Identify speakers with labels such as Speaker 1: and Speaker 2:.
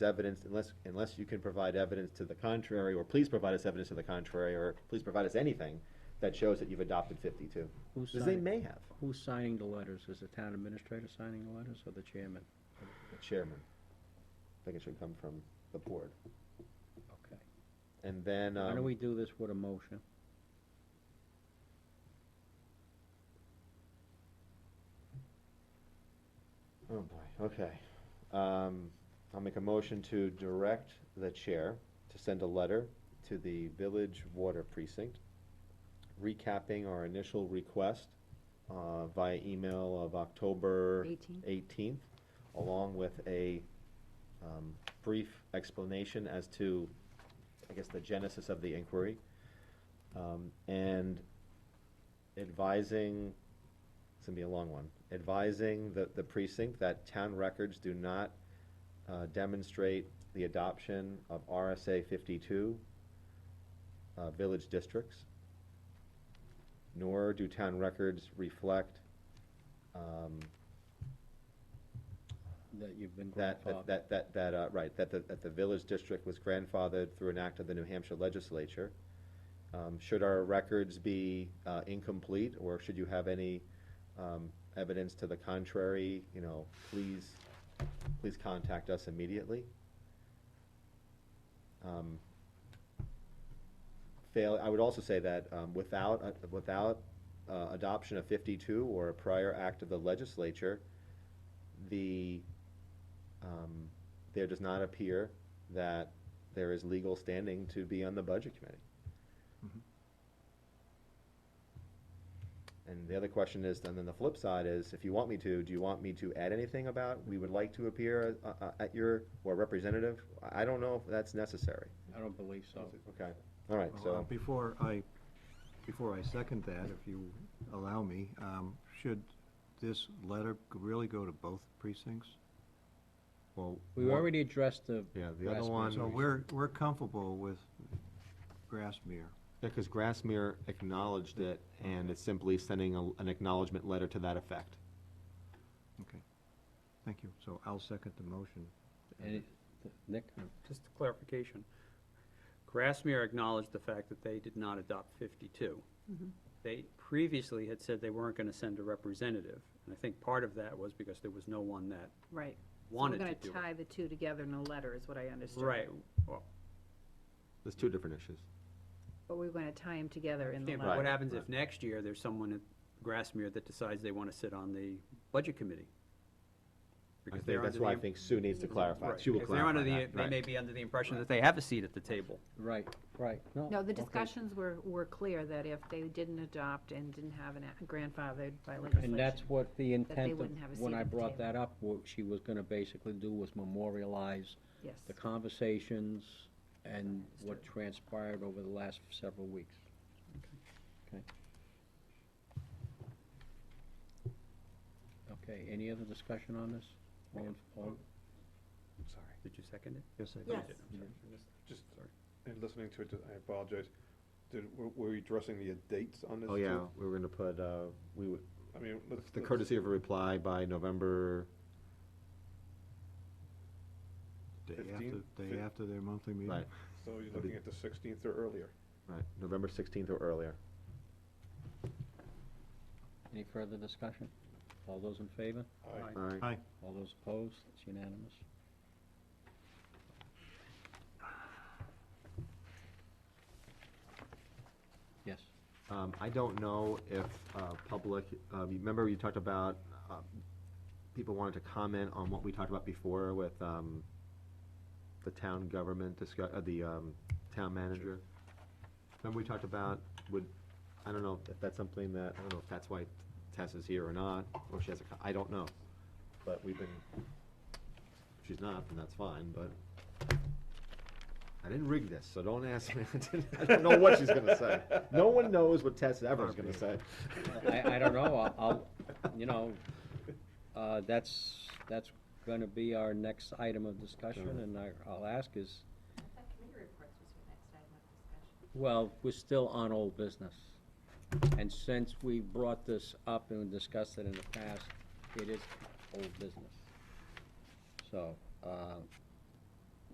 Speaker 1: evidence, unless, unless you can provide evidence to the contrary, or please provide us evidence to the contrary, or please provide us anything that shows that you've adopted fifty-two.
Speaker 2: Who's
Speaker 1: Because they
Speaker 2: signing,
Speaker 1: may have,
Speaker 2: who's signing the letters? Is the town administrator signing the letters or the chairman?
Speaker 1: the chairman. I think it should come from the board.
Speaker 2: Okay.
Speaker 1: And then,
Speaker 2: Why don't
Speaker 1: um,
Speaker 2: we do this with a motion?
Speaker 1: oh boy, okay. Um, I'll make a motion to direct the chair to send a letter to the village water precinct recapping our initial request, uh, via email of October
Speaker 3: 18.
Speaker 1: 18th, along with a um, brief explanation as to, I guess, the genesis of the inquiry, um, and advising, it's gonna be a long one, advising the, the precinct that town records do not uh, demonstrate the adoption of RSA 52 uh, village districts, nor do town records reflect um,
Speaker 2: That you've been
Speaker 1: that, that-
Speaker 2: grandfathered?
Speaker 1: that, that, that, uh, right, that the, that the village district was grandfathered through an act of the New Hampshire legislature. Um, should our records be, uh, incomplete, or should you have any, um, evidence to the contrary, you know, please, please contact us immediately. Um, Fail, I would also say that, um, without, uh, without, uh, adoption of fifty-two or a prior act of the legislature, the, um, there does not appear that there is legal standing to be on the budget committee. And the other question is, and then the flip side is, if you want me to, do you want me to add anything about, we would like to appear uh, uh, at your, or representative? I don't know if that's necessary.
Speaker 2: I don't believe so.
Speaker 1: Okay. All right,
Speaker 4: Well, uh,
Speaker 1: so,
Speaker 4: Before I, before I second that, if you allow me, um, should this letter g- really go to both precincts? Well.
Speaker 2: We
Speaker 4: one-
Speaker 2: already addressed the.
Speaker 1: um, yeah, the other
Speaker 2: Grassmere.
Speaker 1: one.
Speaker 4: So we're, we're comfortable with Grassmere.
Speaker 1: Because Grassmere acknowledged it, and it's simply sending a- an acknowledgement letter to that effect.
Speaker 4: Okay. Thank you. So I'll second the motion.
Speaker 2: Any- Nick,
Speaker 5: Just a clarification. Grassmere acknowledged the fact that they did not adopt 52.
Speaker 3: Mm-hmm.
Speaker 5: They previously had said they weren't going to send a representative, and I think part of that was because there was no one that
Speaker 3: Right.
Speaker 5: wanted to
Speaker 3: So
Speaker 5: do
Speaker 3: we're gonna
Speaker 5: it.
Speaker 3: tie the two together in a letter, is what I understood.
Speaker 5: Right, well,
Speaker 1: There's two different issues.
Speaker 3: But we're gonna tie them together in the
Speaker 5: yeah,
Speaker 3: letter.
Speaker 5: but what happens
Speaker 1: right.
Speaker 5: if next year there's someone at Grassmere that decides they want to sit on the budget committee?
Speaker 1: I
Speaker 5: Because
Speaker 1: think
Speaker 5: they're
Speaker 1: that's
Speaker 5: under
Speaker 1: why I
Speaker 5: the im-
Speaker 1: think Sue needs to clarify.
Speaker 5: right,
Speaker 1: She will
Speaker 5: because they're under
Speaker 1: clarify
Speaker 5: the-
Speaker 1: that,
Speaker 5: They
Speaker 1: right.
Speaker 5: may be under the impression that they have a seat at the table.
Speaker 2: right, right, no.
Speaker 3: No, the
Speaker 2: okay.
Speaker 3: discussions were, were clear that if they didn't adopt and didn't have an a- grandfathered by legislation.
Speaker 2: And that's what the intent
Speaker 3: wouldn't have a
Speaker 2: of, when
Speaker 3: seat
Speaker 2: I
Speaker 3: at the
Speaker 2: brought
Speaker 3: table.
Speaker 2: that up, what she was gonna basically do was memorialize
Speaker 3: Yes,
Speaker 2: the conversations and what transpired over the last several weeks. Okay. Okay, any other discussion on this? All in- all-
Speaker 6: Sorry,
Speaker 5: Did you second it?
Speaker 4: Yes, I
Speaker 5: Oh,
Speaker 4: do.
Speaker 5: you
Speaker 3: Yes.
Speaker 5: did, I'm sorry.
Speaker 6: just,
Speaker 5: Sorry.
Speaker 6: in listening to it, I apologize. Did, were- were we addressing the dates on this?
Speaker 1: Oh, yeah,
Speaker 6: too?
Speaker 1: we were gonna put, uh, we would,
Speaker 6: I mean, let's.
Speaker 1: the
Speaker 6: let's-
Speaker 1: courtesy of a reply by November,
Speaker 4: Day after,
Speaker 6: 15?
Speaker 4: day
Speaker 6: Fif-
Speaker 4: after their monthly meeting.
Speaker 1: right,
Speaker 6: So you're looking at the sixteenth or earlier.
Speaker 1: right, November sixteenth or earlier.
Speaker 2: Any further discussion? All those in favor?
Speaker 6: Aye.
Speaker 5: Aye.
Speaker 1: All right,
Speaker 4: Aye.
Speaker 2: All those opposed? It's unanimous. Yes.
Speaker 1: um, I don't know if, uh, public, uh, you remember you talked about, uh, people wanted to comment on what we talked about before with, um, the town government discuss, uh, the, um, town manager? Remember we talked about, would, I don't know if that's something that, I don't know if that's why Tess is here or not, or she has a, co- I don't know. But we've been, if she's not, then that's fine, but I didn't rig this, so don't ask me, I didn't- I don't know what she's gonna say. No one knows what Tess ever is gonna say.
Speaker 2: I, I don't know, I'll- I'll, you know, uh, that's, that's gonna be our next item of discussion, and I, I'll ask is,
Speaker 7: That committee reports was your next item of discussion.
Speaker 2: well, we're still on old business. And since we brought this up and discussed it in the past, it is old business. So, uh,